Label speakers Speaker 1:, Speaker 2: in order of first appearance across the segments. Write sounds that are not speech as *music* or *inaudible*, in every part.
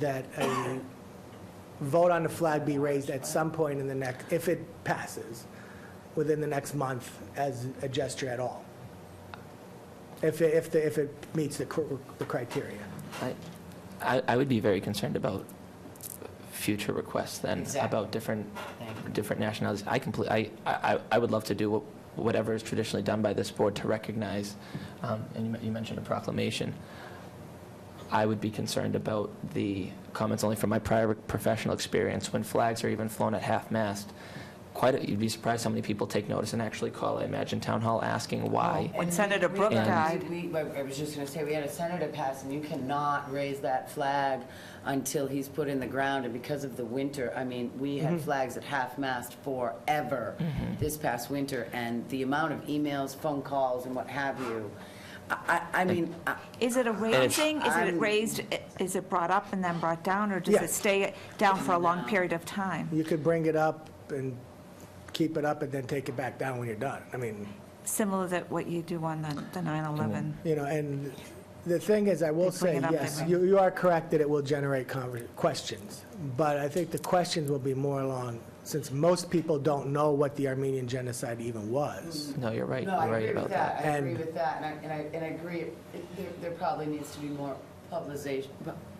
Speaker 1: that a vote on the flag be raised at some point in the next, if it passes, within the next month as a gesture at all. If, it- if, the- if it meets the cr- the criteria.
Speaker 2: I- I, I would be very concerned about future requests then,
Speaker 3: Exactly.
Speaker 2: about different,
Speaker 3: Thank you.
Speaker 2: different nationalities. I complete, I, I, I would love to do what- whatever is traditionally done by this board to recognize, um, and you men- you mentioned a proclamation. I would be concerned about the comments only from my prior professional experience, when flags are even flown at half-mast, quite, a- you'd be surprised how many people take notice and actually call, I imagine, town hall asking why.
Speaker 4: When
Speaker 3: And
Speaker 4: Senator
Speaker 3: we-
Speaker 4: Brooke
Speaker 3: we-
Speaker 4: died.
Speaker 3: we- I I was just going to say, we had a senator pass, and you cannot raise that flag until he's put in the ground, and because of the winter, I mean, we had
Speaker 4: Mm-hmm.
Speaker 3: flags at half-mast forever this past winter, and the amount of emails, phone calls, and what have you, I, I- I mean, I-
Speaker 4: Is it a
Speaker 2: it's-
Speaker 4: raised thing? Is it
Speaker 3: I'm-
Speaker 4: raised, is it brought up and then brought down, or does
Speaker 1: Yeah.
Speaker 4: it stay down for a long period of time?
Speaker 1: You could bring it up and keep it up and then take it back down when you're done. I mean,
Speaker 4: Similar to what you do on the the 9/11.
Speaker 1: you know, and the thing is, I will
Speaker 4: They bring
Speaker 1: say,
Speaker 4: it up, they
Speaker 1: yes,
Speaker 4: bring-
Speaker 1: you, you are correct that it will generate conver- questions. But I think the questions will be more along, since most people don't know what the Armenian genocide even was.
Speaker 2: No, you're right,
Speaker 3: no, I
Speaker 2: you're right
Speaker 3: agree
Speaker 2: about
Speaker 3: with
Speaker 2: that.
Speaker 3: that, I agree
Speaker 1: And-
Speaker 3: with that, and I, and I, and I agree, it- there, there probably needs to be more publicization,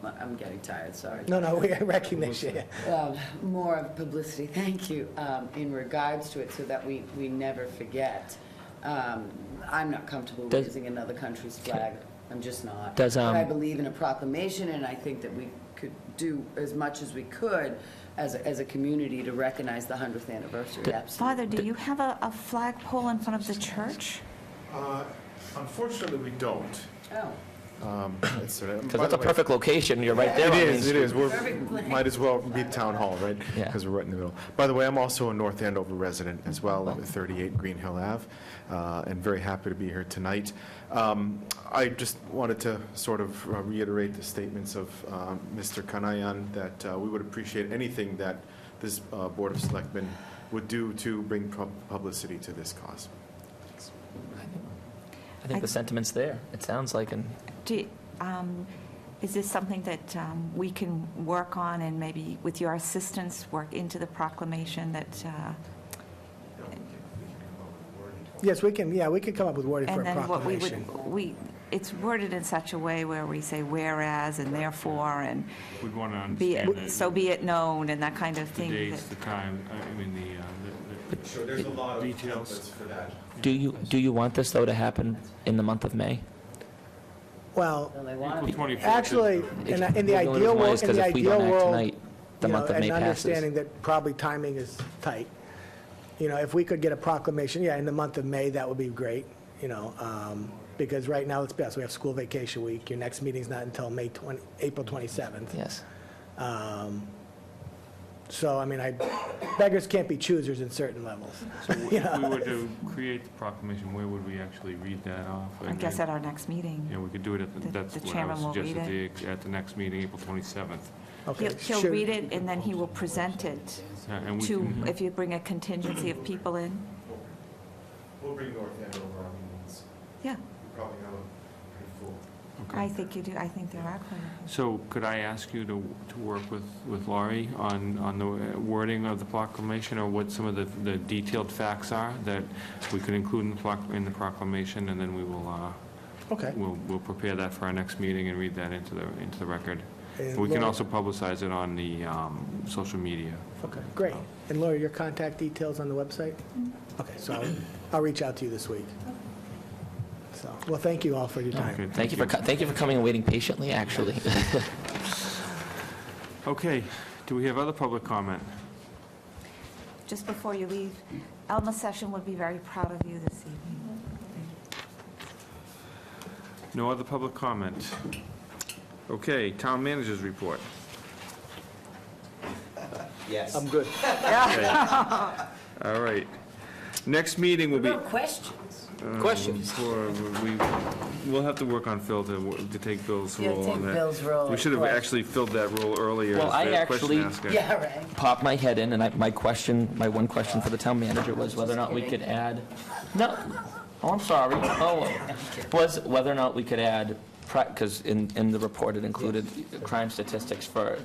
Speaker 3: I'm getting tired, sorry.
Speaker 1: No, *laughs* no, we recognize it.
Speaker 3: um, more of publicity, thank you, um, in regards to it, so that we, we never forget. Um, I'm not comfortable
Speaker 2: Does-
Speaker 3: raising another country's flag, I'm just not.
Speaker 2: Does,
Speaker 3: But I
Speaker 2: um,
Speaker 3: believe in a proclamation, and I think that we could do as much as we could as, a- as a community to recognize the 100th anniversary, absolutely.
Speaker 4: Father, do you have a a flagpole in front of the church?
Speaker 5: Uh, Unfortunately, we don't.
Speaker 3: Oh,
Speaker 5: Because
Speaker 2: Because that's a perfect location, you're right there
Speaker 5: *laughs* It
Speaker 2: on Main
Speaker 5: is, it
Speaker 2: Street.
Speaker 5: is. We're,
Speaker 3: Perfect place.
Speaker 5: might as well be Town Hall, right?
Speaker 2: Yeah.
Speaker 5: Because we're right in the middle. By the way, I'm also a North Andover resident as well, at 38 Green Hill Ave, uh, and very happy to be here tonight. Um, I just wanted to sort of uh, reiterate the statements of um, Mr. Kanayan, that uh, we would appreciate anything that this uh, Board of Selectmen would do to bring pub- publicity to this cause.
Speaker 2: I think the sentiment's there, it sounds like, and
Speaker 4: Do, um, Is this something that um, we can work on and maybe with your assistance, work into the proclamation that, uh,
Speaker 1: Yes, we can, yeah, we could come up with wording for a
Speaker 4: and then what we
Speaker 1: proclamation.
Speaker 4: would, we, it's worded in such a way where we say whereas and therefore and
Speaker 6: We'd want to
Speaker 4: be,
Speaker 6: understand
Speaker 4: it-
Speaker 6: that
Speaker 4: so be it known and that kind of
Speaker 6: the
Speaker 4: thing.
Speaker 6: dates,
Speaker 4: that-
Speaker 6: the time, I- I mean, the, uh, the- the.
Speaker 5: Sure, there's a lot
Speaker 6: of Details. templates
Speaker 5: for that.
Speaker 2: do you, do you want this, though, to happen in the month of May?
Speaker 1: Well,
Speaker 3: well, they
Speaker 6: April
Speaker 3: want to
Speaker 6: 24th is-
Speaker 1: actually, in in the
Speaker 2: The only
Speaker 1: ideal
Speaker 2: reason why
Speaker 1: world,
Speaker 2: is
Speaker 1: in
Speaker 2: 'cause
Speaker 1: the
Speaker 2: if we don't
Speaker 1: ideal
Speaker 2: act
Speaker 1: world,
Speaker 2: tonight, the
Speaker 1: you know,
Speaker 2: month of May
Speaker 1: And
Speaker 2: passes.
Speaker 1: understanding that probably timing is tight. You know, if we could get a proclamation, yeah, in the month of May, that would be great, you know, um, because right now, it's best, we have school vacation week, your next meeting's not until May 20, April 27th.
Speaker 2: Yes.
Speaker 1: So, I mean, I, beggars can't be choosers in certain levels. *laughs*
Speaker 6: So w- if we were to create the proclamation, where would we actually read that off?
Speaker 4: I guess at our next meeting.
Speaker 6: Yeah, we could do it at, the-
Speaker 4: The-
Speaker 6: that's
Speaker 4: the
Speaker 6: what I
Speaker 4: chairman
Speaker 6: was
Speaker 4: will read
Speaker 6: suggesting, the- at the next meeting, April 27th.
Speaker 1: Okay,
Speaker 4: He'll, he'll
Speaker 1: sure.
Speaker 4: read it, and then he will present it
Speaker 6: Yeah, Uh, And we
Speaker 4: to,
Speaker 6: can,
Speaker 4: if you bring a contingency of people in.
Speaker 5: We'll bring North Andover Armenians.
Speaker 4: Yeah,
Speaker 5: We probably have a pretty full
Speaker 4: I
Speaker 6: okay.
Speaker 4: think you do, I think there are quite a few.
Speaker 6: So could I ask you to, to work with, with Laurie on, on the uh, wording of the proclamation, or what some of the, the detailed facts are that we could include in the proc- in the proclamation, and then we will, uh,
Speaker 1: Okay.
Speaker 6: We'll, we'll prepare that for our next meeting and read that into the, into the record.
Speaker 1: And
Speaker 6: We can
Speaker 1: Laura-
Speaker 6: also publicize it on the um, social media.
Speaker 1: Okay, great. And Laura, your contact details on the website? Okay, so I'll- I'll reach out to you this week. So, well, thank you all for your time.
Speaker 6: Okay,
Speaker 2: Thank you for, co- thank you for coming and waiting patiently, *laughs* actually.
Speaker 6: Okay, do we have other public comment?
Speaker 4: Just before you leave, Alma Session would be very proud of you this evening.
Speaker 6: No other public comment? Okay, town managers
Speaker 3: *laughs*
Speaker 6: report.
Speaker 7: Yes.
Speaker 1: I'm good.
Speaker 6: All right. Next meeting will be...
Speaker 3: No questions.
Speaker 7: Questions?
Speaker 6: For, we, we'll have to work on Phil to, w- to take Bill's
Speaker 3: Yeah,
Speaker 6: role
Speaker 3: take
Speaker 6: on that.
Speaker 3: Bill's role,
Speaker 6: We should have
Speaker 3: of course.
Speaker 6: actually filled that role earlier.
Speaker 2: Well,
Speaker 6: as
Speaker 2: I
Speaker 6: the question
Speaker 2: actually-
Speaker 6: asker.
Speaker 3: Yeah, right.
Speaker 2: Popped my head in, and I, my question, my one question for the town manager was whether or not we could add, no, oh, I'm sorry, oh, was whether or not we could add because in, in the report, it included crime statistics for